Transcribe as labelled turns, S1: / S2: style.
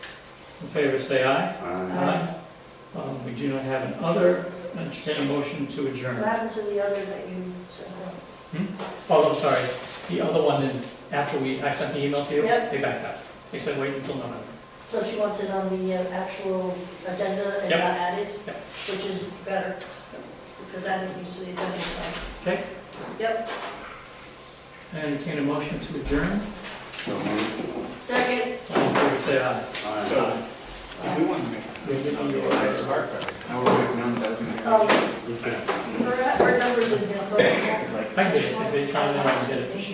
S1: In favor, say aye.
S2: Aye.
S1: Aye. Um, We do not have an other, entertain a motion to
S3: What
S1: adjourn.
S3: happened to the other that you sent out?
S1: Oh, I'm sorry, the other one, then, after we, I sent the email to you,
S3: Yep.
S1: they backed up. They said wait until November.
S3: So she wants it on the uh, actual agenda and
S1: Yep.
S3: not added?
S1: Yep.
S3: Which is better, because added needs to the agenda.
S1: Okay.
S3: Yep,
S1: Entertain a motion to adjourn.
S2: So moved.
S3: second,
S1: All in favor, say aye.
S2: Aye.
S1: Aye.
S4: If we want to make,
S1: We did under
S4: it
S1: order.
S4: a hard
S2: Now we're waiting on that.
S3: um, her, her number's in here, but.
S1: I did it, they signed it, I did it.